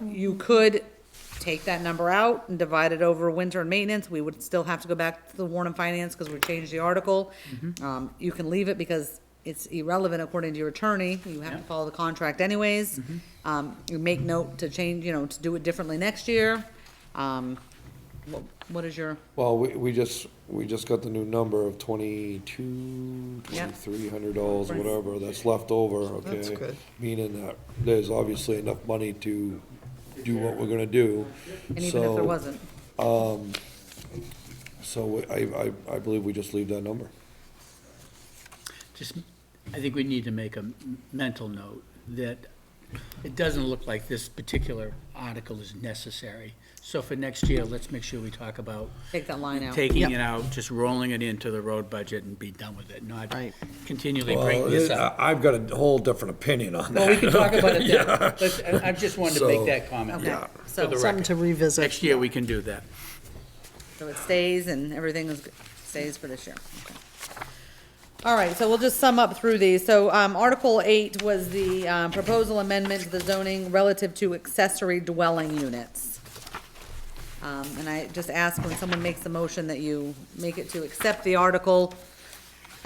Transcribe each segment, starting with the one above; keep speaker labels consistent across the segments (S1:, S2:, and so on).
S1: You could take that number out and divide it over winter and maintenance, we would still have to go back to the warrant and finance, because we changed the article.
S2: Mm-hmm.
S1: Um, you can leave it because it's irrelevant according to your attorney, you have to follow the contract anyways.
S2: Mm-hmm.
S1: Um, you make note to change, you know, to do it differently next year, um, what, what is your,
S3: Well, we, we just, we just got the new number of twenty-two,
S1: Yep.
S3: twenty-three hundred dollars,
S1: Right.
S3: whatever, that's left over, okay?
S4: That's good.
S3: Meaning that there's obviously enough money to do what we're gonna do.
S1: and even if there
S3: So-
S1: wasn't,
S3: So I, I, I believe we just leave that number.
S2: Just, I think we need to make a m- mental note that it doesn't look like this particular article is necessary. So for next year, let's make sure we talk about
S1: take that line out.
S2: taking it out, just rolling it into the road budget and be done with it, not
S4: Right.
S2: continually bring this up.
S3: I've got a whole different opinion on
S2: Well, we can talk about it then, but I I just wanted to make
S3: So-
S2: that comment.
S1: Okay,
S2: For the
S1: so,
S4: Something
S2: record.
S4: to revisit.
S2: Next year, we can do that.
S1: so it stays and everything is, stays for this year, okay. All right, so we'll just sum up through these. So, um, Article eight was the, um, proposal amendment to the zoning relative to accessory dwelling units. Um, and I just ask when someone makes a motion that you make it to accept the article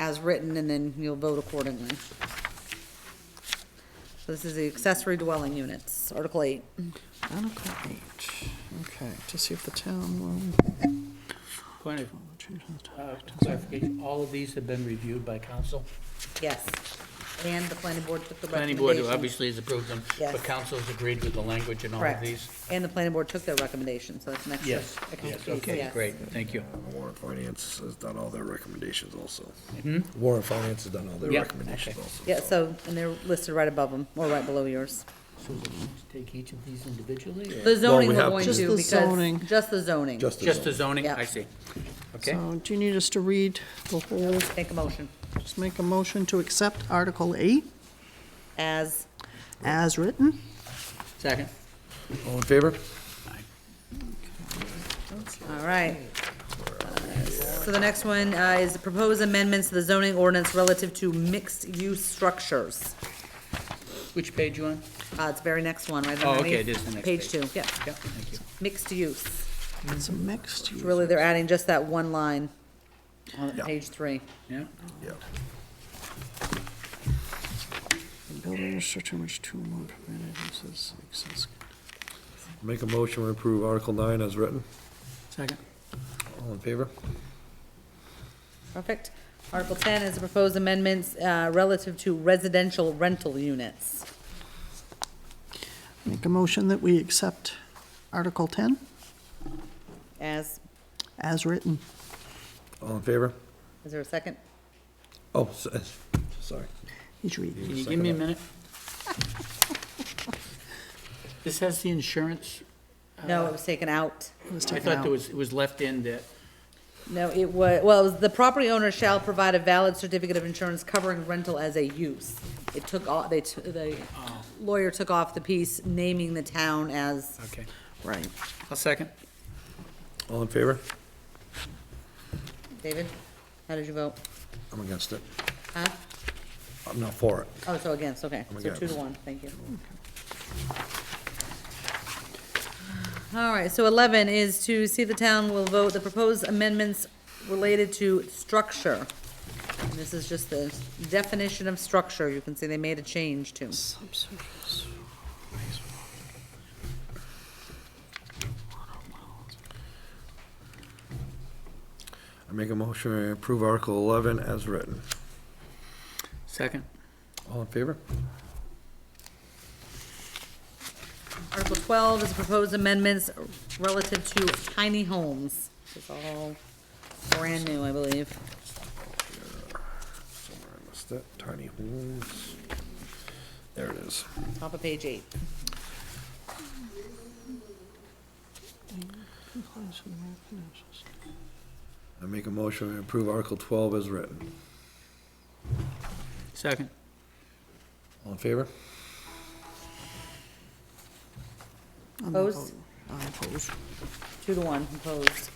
S1: as written, and then you'll vote accordingly. So this is the accessory dwelling units, Article eight.
S4: Article eight, okay, to see if the town
S2: Point of
S4: will.
S2: uh, clarification, all of these have been reviewed by council?
S1: Yes, and the planning board took the
S2: Planning board
S1: recommendation.
S2: obviously has approved them, but
S1: Yes.
S2: council's agreed with the language and all of
S1: Correct,
S2: these?
S1: and the planning board took their recommendation, so that's next.
S2: Yes,
S1: next
S2: yes,
S1: piece,
S2: okay,
S1: yes.
S2: great, thank you.
S3: Warren Finance has done all their recommendations also. Warren Finance has done all their
S2: Yeah,
S3: recommendations
S2: okay.
S3: also.
S1: Yeah, so, and they're listed right above them, or right below yours.
S2: So we'll just take each of these individually?
S1: The zoning
S3: we
S1: we're
S3: have
S1: going
S3: to-
S1: to,
S4: Just the zoning.
S1: because, just the zoning.
S3: Just as
S2: Just the zoning,
S1: Yeah.
S2: I see. Okay,
S4: So do you need us to read the whole,
S1: Make a motion,
S4: just make a motion to accept Article eight
S1: as,
S4: as written?
S2: second.
S3: all in favor?
S1: all right. Uh, So the next one uh, is proposed amendments to the zoning ordinance relative to mixed-use structures.
S2: Which page you on?
S1: Uh, it's the very next one, right
S2: Oh, okay,
S1: underneath.
S2: it is the next
S1: Page
S2: page.
S1: two, yeah,
S2: Yeah, thank you.
S1: mixed use.
S4: It's a mixed use.
S1: Really, they're adding just that one line on
S3: Yeah.
S1: page three.
S2: Yeah,
S3: Yeah.
S4: Building restriction which two or more permitted uses exists.
S3: Make a motion to approve Article nine as written.
S2: second.
S3: All in favor?
S1: Perfect. Article ten is the proposed amendments uh, relative to residential rental units.
S4: Make a motion that we accept Article ten
S1: As,
S4: as written.
S3: All in favor?
S1: is there a second?
S3: Oh, s- sorry.
S4: He's reading.
S2: Can you give me a minute? This has the insurance?
S1: No, it was taken out.
S4: It was
S2: I
S4: taken
S2: thought
S4: out.
S2: there was, it was left in that,
S1: No, it was, well, it was, the property owner shall provide a valid certificate of insurance covering rental as a use. It took all, they, t- the lawyer took off the piece naming the town as,
S2: okay.
S4: Right.
S2: I'll second.
S3: All in favor?
S1: David, how did you vote?
S3: I'm against it.
S1: Huh?
S3: I'm not for it.
S1: Oh, so against, okay,
S3: I'm
S1: so two to
S3: against.
S1: one, thank you. All right, so eleven is to see if the town will vote the proposed amendments related to structure. And This is just the definition of structure, you can see they made a change to.
S4: Subsurface.
S3: I make a motion to approve Article eleven as written.
S2: Second.
S3: All in favor?
S1: Article twelve is proposed amendments relative to tiny homes. This is all brand new, I believe.
S3: Somewhere I missed it. Tiny homes. There it is.
S1: Top of page eight.
S4: Compliance with American National
S3: I make a motion to approve Article twelve as written.
S2: Second.
S3: All in favor?
S4: I'm not
S1: Opposed?
S4: voting. I oppose.
S1: Two to one, opposed.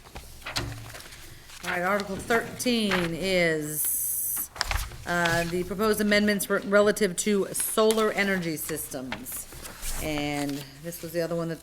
S1: All right, Article thirteen is, uh, the proposed amendments re- relative to solar energy systems. And this was the other one that